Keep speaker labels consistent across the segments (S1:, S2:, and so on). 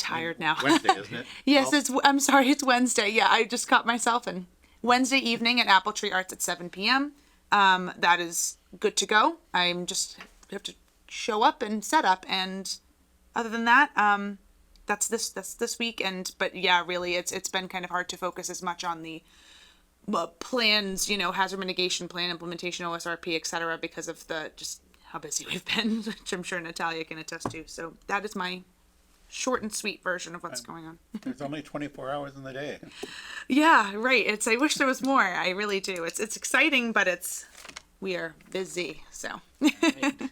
S1: tired now.
S2: Wednesday, isn't it?
S1: yes, it's. I'm sorry, it's Wednesday. Yeah, I just caught myself. And Wednesday evening at Apple Tree Arts at 7 p.m. Um, that is good to go. I'm just have to show up and set up, and other than that, um, that's this that's this week. And but yeah, really, it's it's been kind of hard to focus as much on the uh, plans, you know, hazard mitigation plan implementation, OSRP, et cetera, because of the just how busy we've been, which I'm sure Natalia can attest to. So that is my short and sweet version of what's going on.
S2: There's only twenty-four hours in the day.
S1: Yeah, right. It's I wish there was more. I really do. It's it's exciting, but it's we are busy. So. and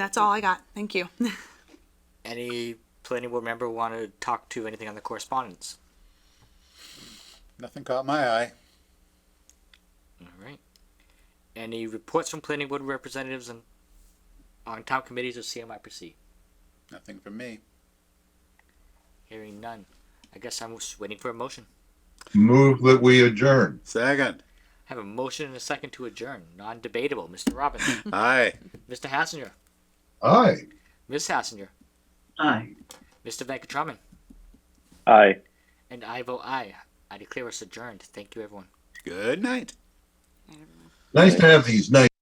S1: that's all I got. Thank you.
S3: Any planning board member want to talk to anything on the correspondence?
S2: Nothing caught my eye.
S3: All right. Any reports from planning board representatives and on town committees or CMIPC?
S2: Nothing from me.
S3: Hearing none. I guess I'm just waiting for a motion.
S4: Move that we adjourn.
S2: Second.
S3: Have a motion and a second to adjourn. Non-debatable. Mr. Robbins,
S2: Aye.
S3: Mr. Hassinger,
S4: Aye.
S3: Ms. Hassinger,
S5: Aye.
S3: Mr. Venkataraman,
S5: Aye.
S3: and I vote aye. I declare us adjourned. Thank you, everyone.
S2: Good night.
S4: Nice to have these nice.